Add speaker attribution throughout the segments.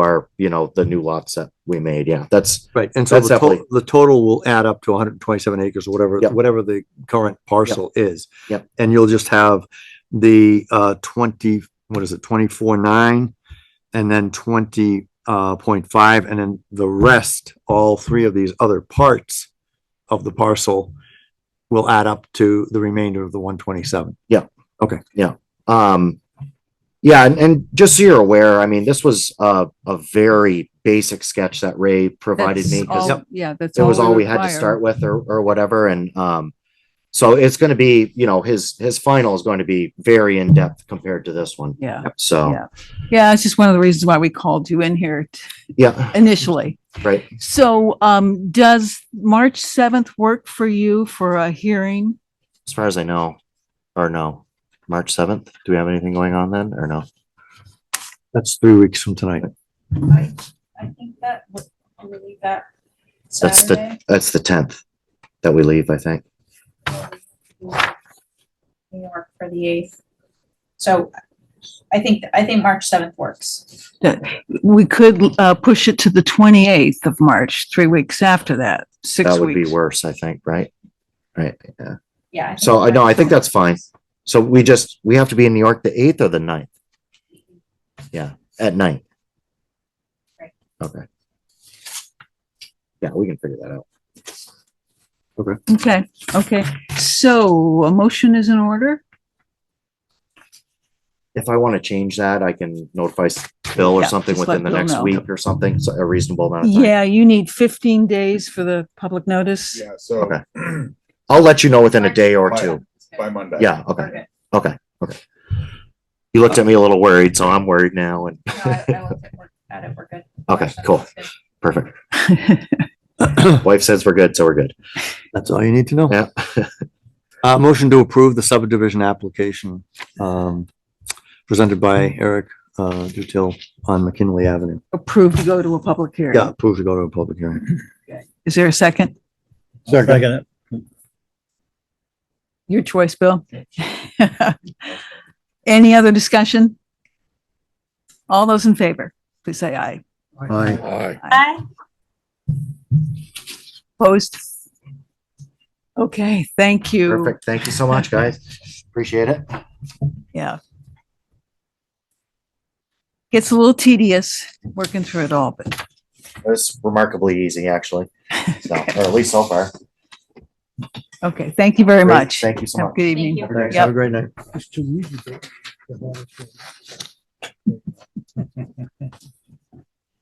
Speaker 1: our, you know, the new lots that we made. Yeah, that's,
Speaker 2: Right, and so
Speaker 1: That's
Speaker 2: the total,
Speaker 1: definitely-
Speaker 2: the total will add up to hundred and twenty-seven acres, or whatever,
Speaker 1: Yep.
Speaker 2: whatever the current parcel is.
Speaker 1: Yep.
Speaker 2: And you'll just have the, uh, twenty, what is it, twenty-four nine? And then twenty, uh, point five, and then the rest, all three of these other parts of the parcel will add up to the remainder of the one twenty-seven.
Speaker 1: um, yeah, and, and just so you're aware, I mean, this was a, a very basic sketch that Ray provided
Speaker 3: That's
Speaker 1: me. 'cause-
Speaker 3: all- Yeah, that's.
Speaker 1: it was all we had to
Speaker 3: require.
Speaker 1: start with or, or whatever. And, um, so it's going to be, you know, his, his final is going to be very in depth compared to this one.
Speaker 3: Yeah,
Speaker 1: So,
Speaker 3: Yeah. yeah, it's just one of the reasons why we called you in here t-
Speaker 1: yeah,
Speaker 3: initially.
Speaker 1: right.
Speaker 3: So, um, does March seventh work for you for a hearing?
Speaker 1: As far as I know, or no, March 7th, do we have anything going on then or no?
Speaker 2: That's three weeks from tonight.
Speaker 4: I, I think that, would- I believe that
Speaker 1: That's the,
Speaker 4: Saturday.
Speaker 1: that's the 10th that we leave, I think.
Speaker 4: New York for the eighth. So I think, I think March seventh works.
Speaker 3: We could, uh, push it to the twenty-eighth of March, three weeks after that, six
Speaker 1: That would be
Speaker 3: weeks.
Speaker 1: worse, I think, right? Right. Yeah.
Speaker 4: Yeah.
Speaker 1: So I know, I think that's fine. So we just, we have to be in New York the 8th or the 9th? Yeah, at night.
Speaker 4: Right.
Speaker 1: Okay. Yeah, we can figure that out.
Speaker 3: Okay, okay. So a motion is in order?
Speaker 1: If I want to change that, I can notify Bill or
Speaker 3: Yeah,
Speaker 1: something
Speaker 3: just
Speaker 1: within the
Speaker 3: let Bill
Speaker 1: next
Speaker 3: know.
Speaker 1: week or something, so a reasonable amount of time.
Speaker 3: Yeah, you need fifteen days for the public notice.
Speaker 5: Yeah, so
Speaker 1: Okay. I'll let you know within a day or
Speaker 5: Right.
Speaker 1: two.
Speaker 5: by Monday.
Speaker 1: Yeah,
Speaker 4: We're
Speaker 1: okay,
Speaker 4: good.
Speaker 1: okay, okay. You looked at me a little worried, so I'm worried now and,
Speaker 4: No, I, I looked at, work- at it, we're good.
Speaker 1: okay, cool,
Speaker 4: Good.
Speaker 1: perfect. Wife says we're good, so we're good.
Speaker 2: That's all you need to know.
Speaker 1: Yeah.
Speaker 2: Uh, motion to approve the subdivision application, um, presented by Eric, uh, Dutil on McKinley Avenue.
Speaker 3: Approved to go to a public hearing.
Speaker 2: Yeah, approved to go to a public hearing.
Speaker 3: Is there a second?
Speaker 6: Second.
Speaker 3: Your choice, Bill. Any other discussion? All those in favor, please say aye.
Speaker 2: Aye.
Speaker 4: Bye.
Speaker 3: Opposed? Okay, thank you.
Speaker 1: Perfect, thank you so much, guys. Appreciate it.
Speaker 3: Yeah. Gets a little tedious working through it all, but
Speaker 1: It's remarkably easy, actually. So, or at least so far.
Speaker 3: okay, thank you very
Speaker 1: Great,
Speaker 3: much.
Speaker 1: Thank you so
Speaker 3: Have a
Speaker 1: much.
Speaker 3: good evening.
Speaker 4: you.
Speaker 2: Thanks.
Speaker 3: Yep.
Speaker 2: Have a great night.
Speaker 6: It's too easy. though.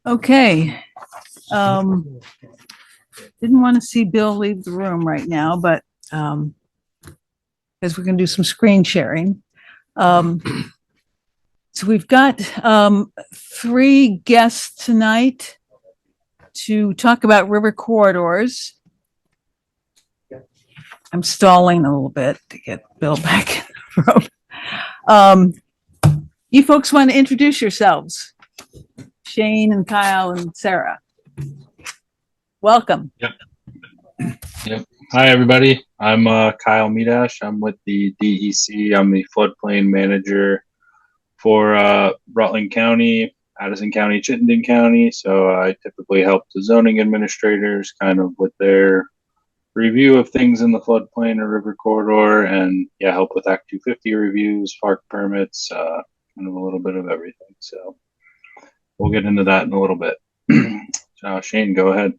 Speaker 3: Okay. Um, didn't want to see Bill leave the room right now, but, um, because we're going to do some screen sharing. Um, so we've got, um, three guests tonight to talk about river corridors. I'm stalling a little bit to get Bill back in the room. Um, you folks want to introduce yourselves? Shane and Kyle and Sarah. Welcome.
Speaker 7: Hi, everybody. I'm uh, Kyle Midash. I'm with the DEC. I'm the floodplain manager for uh, Rutland County, Addison County, Chittenden County. So I typically help the zoning administrators kind of with their review of things in the floodplain or river corridor and yeah, help with Act 250 reviews, FARC permits, uh, kind of a little bit of everything. So we'll get into that in a little bit. uh, Shane, go ahead.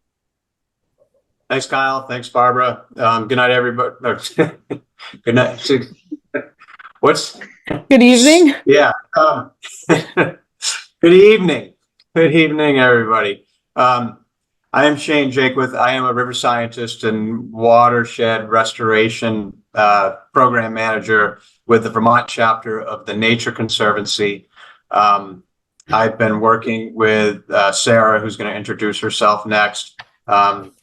Speaker 8: Thanks, Kyle. Thanks, Barbara. Um, good night, everybody. Good night. What's,
Speaker 3: Good evening.
Speaker 8: yeah. um, Good evening. Good evening, everybody. Um, I am Shane Jakewith. I am a river scientist and watershed restoration uh, program manager with the Vermont chapter of the Nature Conservancy. Um, I've been working with uh, Sarah, who's going to introduce herself next, um,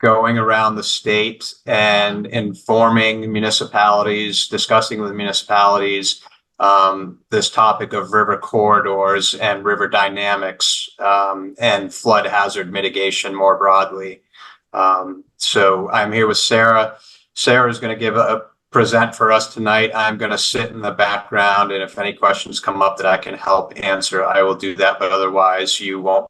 Speaker 8: going around the state and informing municipalities, discussing with municipalities um, this topic of river corridors and river dynamics um, and flood hazard mitigation more broadly. Um, so I'm here with Sarah. Sarah's going to give a present for us tonight. I'm going to sit in the background, and if any questions come up that I can help answer, I will do that. But otherwise, you won't